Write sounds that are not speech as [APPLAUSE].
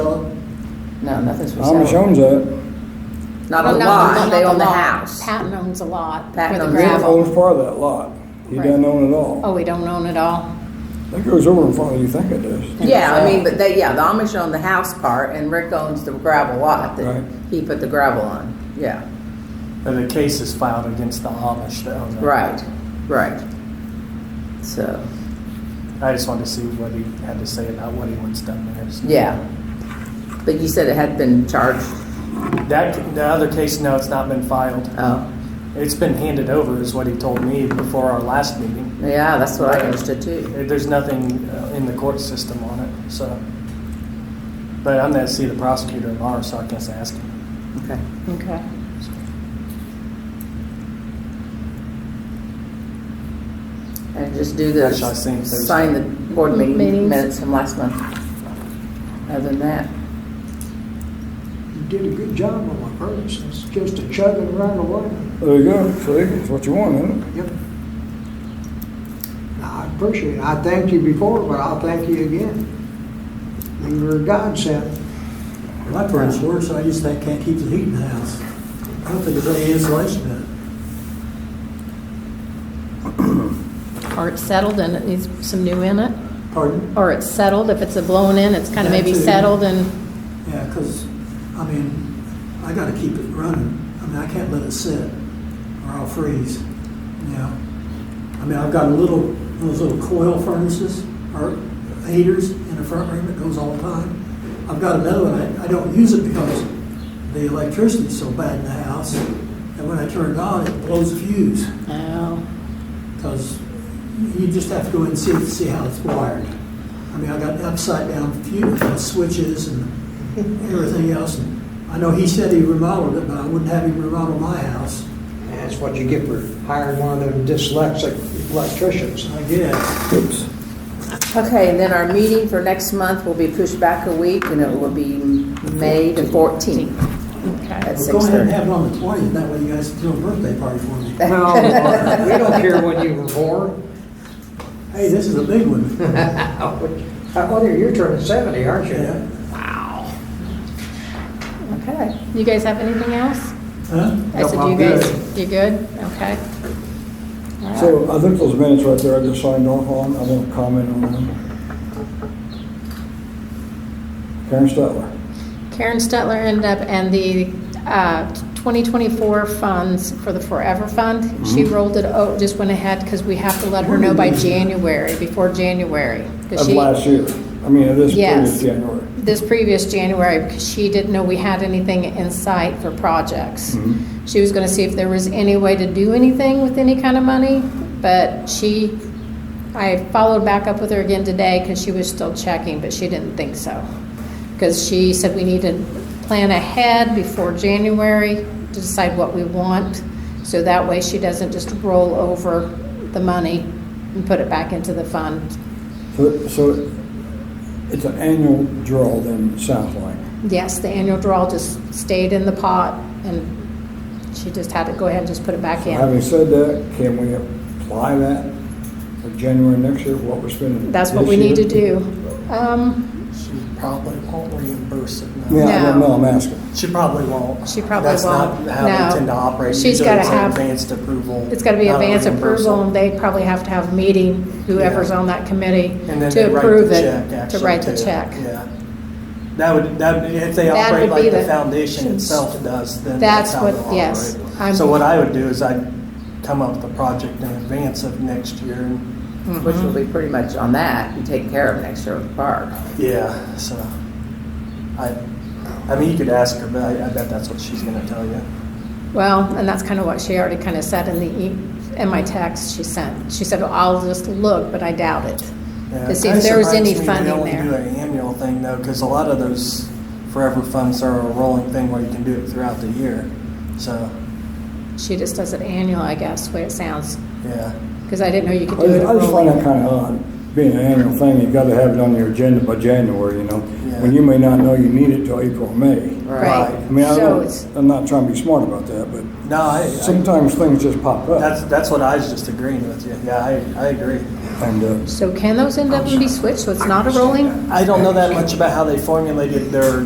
No, nothing's for sale. Amish owns that. Not Well, a no, lot, not they the own the lot. house. Patton owns a lot Patton for the owns Rick Gravel. owns gravel. part of that lot. He Right. doesn't own it all. Oh, we don't own it all? That goes over in front of you, think it does. Yeah, I mean, but they, yeah, the Amish own the house part and Rick owns the gravel lot Right. that he put the gravel on. Yeah, But the case is filed against the Amish that own that. right, right. So, I just wanted to see what he had to say about what he wants done there. So yeah. But you said it had been charged. That, the other case, no, it's not been filed. Oh, It's been handed over is what he told me before our last meeting. yeah, that's what I understood too. Eh, There's nothing uh, in the court system on it, so. But I'm gonna see the prosecutor tomorrow, so I guess ask him. Okay. Okay. And just do the, Which I think there's- sign the board meeting Meetings. minutes from last month. Other than that, You did a good job on my purpose, it's just a chugging right away. There you go, see, that's what you want, isn't it? Yep. I appreciate it. I thanked you before, but I'll thank you again. You were a godsend. My furnace works, I just think can't keep the heat in the house. I don't think there's any insulation in it. Or it's settled and it needs some new in it? Pardon? Or it's settled, if it's a blown in, it's kind of maybe That's it. settled and, Yeah, because, I mean, I gotta keep it running. I mean, I can't let it sit or I'll freeze, you know? I mean, I've got a little, those little coil furnaces or heaters in the front room that goes all the time. I've got another one, I, I don't use it because the electricity's so bad in the house. And when I turn it on, it blows a fuse. oh, because you just have to go in and see, see how it's wired. I mean, I got upside down few uh, switches and everything else. And I know he said he remodeled it, but I wouldn't have him remodel my house, And That's what you get for hiring one of them dyslexic electricians. I guess. Oops. okay, and then our meeting for next month will be pushed back a week and it will be May the fourteenth okay. at Well, six go ahead and thirty. have it on the twentieth, that way you guys can throw a birthday party for me. Well, [LAUGHS] we don't care when you were born. Hey, this is a big [LAUGHS] one. Uh, Well, you're turning 70, aren't Yeah. you? Okay. You guys have anything else? Huh? I No, said, I'm you guys, you good? Okay. So I think those minutes right there I just signed off on, I won't comment on them. Karen Stetler. Karen Stetler ended up, and the uh, 2024 funds for the Forever Fund, she rolled it, oh, just went ahead, because we have to let her know by January, before January. 'cause Of she- last year, I mean, of this Yes. previous January. This previous January, because she didn't know we had anything in sight for projects. She was gonna see if there was any way to do anything with any kind of money, but she, I followed back up with her again today, because she was still checking, but she didn't think so. Because she said we need to plan ahead before January to decide what we want, so that way she doesn't just roll over the money and put it back into the fund. So, so it's an annual draw then, it sounds like. Yes, the annual draw just stayed in the pot, and she just had to go ahead and just put it back in. Having said that, can we apply that for January next year, what we're spending? That's what this we need to year? do. Um, She probably won't reimburse it. no. Yeah, I don't No. know, I'm asking. She probably won't. She probably That's not won't. how they No. tend to operate. She's Usually gotta it's an have- Advanced approval. It's gotta be not a advance approval, reimbursal. and they probably have to have a meeting, whoever's Yeah. on that committee, And then they to write the approve check, it, to actually, write the too. check. Yeah. That would, that, if they That operate would be like the the- foundation itself does, then That's that's how what- they'll operate. yes, I'm- So what I would do is I'd come up with a project in advance of next year and, Which will be pretty much on that and taken care of next year with the park. yeah, so. I, I mean, you could ask her, but I, I bet that's what she's gonna tell you. Well, and that's kind of what she already kind of said in the, e- in my text she sent. She said, "Well, I'll just look, but I doubt it, Yeah, to see it if there was surprised any me they funding only Do there. an annual thing though, because a lot of those forever funds are a rolling thing where you can do it throughout the year. So, She just does it annual, I guess, the way it sounds, yeah. because I didn't know you could I do it just- I just find that rolling. kind of odd, being an annual thing, you gotta have it on your agenda by January, you know? When Yeah. you may not know you need it till April, or May. Right. I mean, I So don't, it's- I'm not trying to be smart about that, but No, I, I, sometimes things just pop up. that's, that's what I was just agreeing with you. Yeah, I, I agree. And, uh, So can those end up and be switched, so it's not a rolling? I don't know that much about how they formulated their